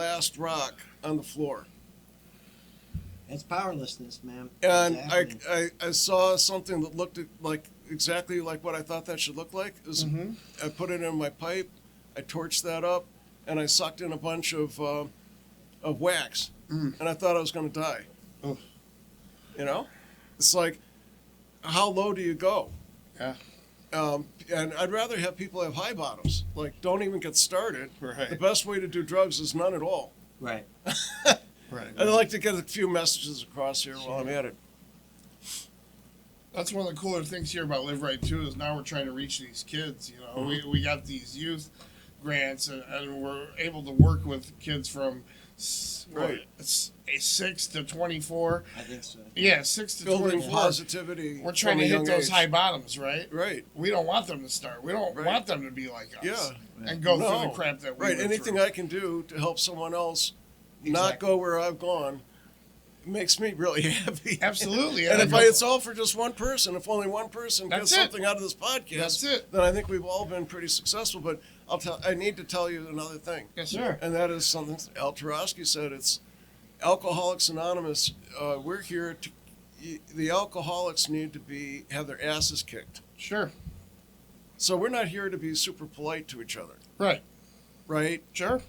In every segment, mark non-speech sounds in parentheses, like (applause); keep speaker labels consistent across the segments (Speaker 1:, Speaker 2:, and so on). Speaker 1: last rock on the floor.
Speaker 2: It's powerlessness, man.
Speaker 1: And
Speaker 2: It's
Speaker 1: I,
Speaker 2: happening.
Speaker 1: I, I saw something that looked at- like exactly like what I thought that should look like. It was-
Speaker 2: Mhm.
Speaker 1: I put it in my pipe, I torched that up, and I sucked in a bunch of uh, of wax,
Speaker 2: Mm.
Speaker 1: and I thought I was going to die.
Speaker 2: Oh.
Speaker 1: You know, it's like, how low do you go?
Speaker 3: Yeah.
Speaker 1: Um, and I'd rather have people have high bottoms. Like, don't even get started.
Speaker 3: Right.
Speaker 1: The best way to do drugs is none at all.
Speaker 2: right.
Speaker 3: Right.
Speaker 1: I'd like to get a few messages across here while I'm at it.
Speaker 3: That's one of the cooler things here about Live Right too is now we're trying to reach these kids. You know,
Speaker 1: Mm-hmm.
Speaker 3: we, we got these youth grants and, and we're able to work with kids from s- what,
Speaker 1: Right.
Speaker 3: s- a six to twenty four.
Speaker 2: I think so.
Speaker 3: Yeah, six to twenty
Speaker 1: Building
Speaker 3: four.
Speaker 1: positivity.
Speaker 3: We're trying
Speaker 1: from a
Speaker 3: to hit
Speaker 1: young
Speaker 3: those
Speaker 1: age.
Speaker 3: high bottoms, right?
Speaker 1: Right,
Speaker 3: We don't want them to start. We don't
Speaker 1: Right.
Speaker 3: want them to be like us.
Speaker 1: Yeah.
Speaker 3: And go through
Speaker 1: No.
Speaker 3: the crap that we
Speaker 1: right.
Speaker 3: went
Speaker 1: Anything
Speaker 3: through.
Speaker 1: I can do to help someone else not
Speaker 3: Exactly.
Speaker 1: go where I've gone makes me really (laughs) happy.
Speaker 3: Absolutely.
Speaker 1: And
Speaker 3: I
Speaker 1: if
Speaker 3: go-
Speaker 1: I, it's all for just one person, if only one person gets
Speaker 3: That's it.
Speaker 1: something out of this podcast,
Speaker 3: That's it.
Speaker 1: then I think we've all been pretty successful. But I'll tell, I need to tell you another thing.
Speaker 3: yes,
Speaker 2: Sure.
Speaker 3: sir.
Speaker 1: And that is something Al Tarosky said. It's Alcoholics Anonymous. Uh, we're here to. y- The alcoholics need to be have their asses kicked.
Speaker 3: Sure.
Speaker 1: So we're not here to be super polite to each other,
Speaker 3: Right.
Speaker 1: right?
Speaker 3: Sure.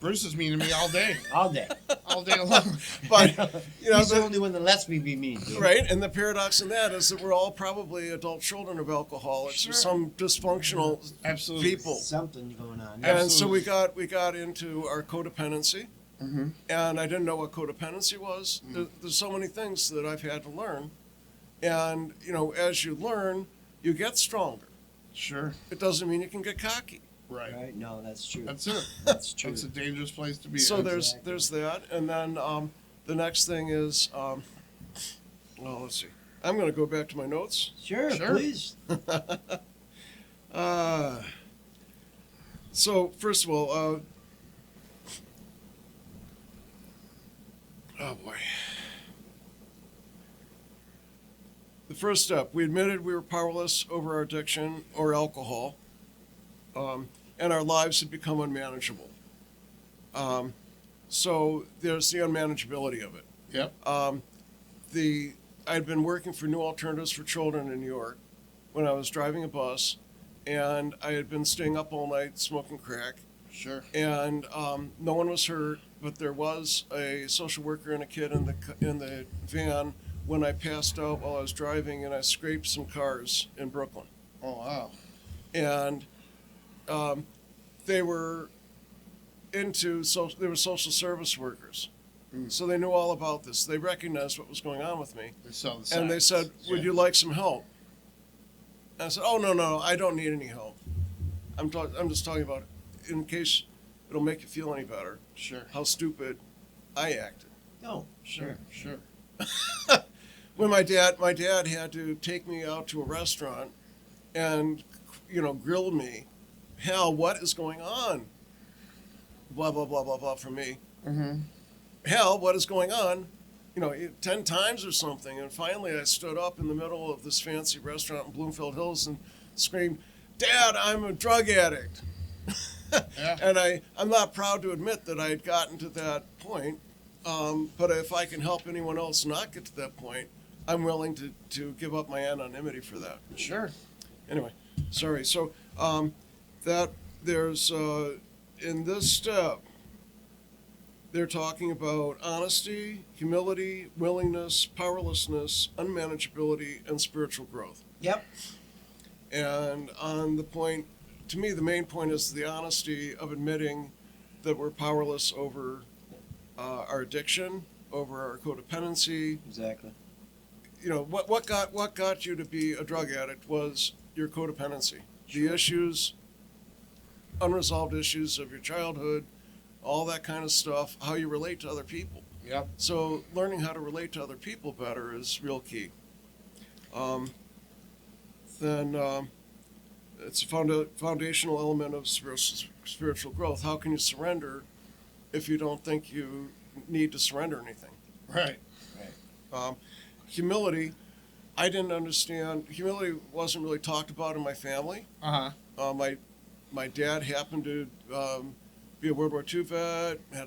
Speaker 3: Bruce is mean to me all day,
Speaker 2: All
Speaker 1: (laughs)
Speaker 2: day.
Speaker 3: all day long.
Speaker 1: But
Speaker 2: (laughs)
Speaker 1: you know,
Speaker 2: He's the
Speaker 1: the,
Speaker 2: only one that lets me be mean. dude.
Speaker 1: right. And the paradox in that is that we're all probably adult children of alcoholics
Speaker 3: Sure.
Speaker 1: or some dysfunctional
Speaker 3: Absolutely.
Speaker 1: people.
Speaker 2: Something going on.
Speaker 3: Yeah.
Speaker 1: And so
Speaker 3: Absolutely.
Speaker 1: we got we got into our codependency,
Speaker 3: Mhm.
Speaker 1: and I didn't know what codependency was. There, there's so many things that I've had to learn, and you know, as you learn, you get stronger.
Speaker 3: Sure.
Speaker 1: It doesn't mean you can get cocky.
Speaker 3: Right.
Speaker 2: Right? No, that's true.
Speaker 3: That's it.
Speaker 2: That's true.
Speaker 3: It's a dangerous place to be.
Speaker 1: so
Speaker 3: in.
Speaker 1: there's
Speaker 2: Exactly.
Speaker 1: there's that, and then um, the next thing is, um, well, let's see. I'm going to go back to my notes.
Speaker 2: sure,
Speaker 3: Sure.
Speaker 2: please.
Speaker 1: Uh, so first of all, uh, oh boy. The first step, we admitted we were powerless over our addiction or alcohol, um, and our lives had become unmanageable. Um, so there's the unmanageability of it
Speaker 3: Yep.
Speaker 1: um, the I'd been working for New Alternatives for Children in New York when I was driving a bus, and I had been staying up all night smoking crack,
Speaker 3: Sure.
Speaker 1: and um, no one was hurt, but there was a social worker and a kid in the c- in the van when I passed out while I was driving, and I scraped some cars in Brooklyn,
Speaker 3: Oh wow.
Speaker 1: and um, they were into social they were social service workers.
Speaker 3: Mm.
Speaker 1: So they knew all about this. They recognized what was going on with me.
Speaker 3: They saw the
Speaker 1: And they
Speaker 3: signs.
Speaker 1: said, Would
Speaker 3: Yeah.
Speaker 1: you like some help? And I said, Oh, no, no, I don't need any help. I'm, talk- I'm just talking about, in case it'll make you feel any better,
Speaker 3: Sure.
Speaker 1: how stupid I acted.
Speaker 2: No,
Speaker 3: Sure. Sure.
Speaker 1: When my dad, my dad had to take me out to a restaurant and, you know, grill me. Hal, what is going on? Blah, blah, blah, blah, blah, from me.
Speaker 3: Mm-hmm.
Speaker 1: hell, what is going on? You know, it- 10 times or something. And finally, I stood up in the middle of this fancy restaurant in Bloomfield Hills and screamed, Dad, I'm a drug addict.
Speaker 3: Yeah.
Speaker 1: (laughs) And I, I'm not proud to admit that I had gotten to that point. Um, but if I can help anyone else not get to that point, I'm willing to, to give up my anonymity for that
Speaker 3: Sure.
Speaker 1: anyway, sorry. So um, that there's uh, in this step, they're talking about honesty, humility, willingness, powerlessness, unmanageability, and spiritual growth.
Speaker 2: Yep.
Speaker 1: And on the point, to me, the main point is the honesty of admitting that we're powerless over uh, our addiction, over our codependency,
Speaker 2: Exactly.
Speaker 1: you know what what got what got you to be a drug addict was your codependency the issues unresolved issues of your childhood all that kind of stuff how you relate to other people
Speaker 3: Yep.
Speaker 1: so learning how to relate to other people better is real key um, then um, it's a founda- foundational element of spiritual, spiritual growth how can you surrender if you don't think you need to surrender anything
Speaker 3: Right.
Speaker 1: um, humility, I didn't understand. Humility wasn't really talked about in my family.
Speaker 3: Uh huh.
Speaker 1: Uh, my my dad happened to um, be a World War II vet, had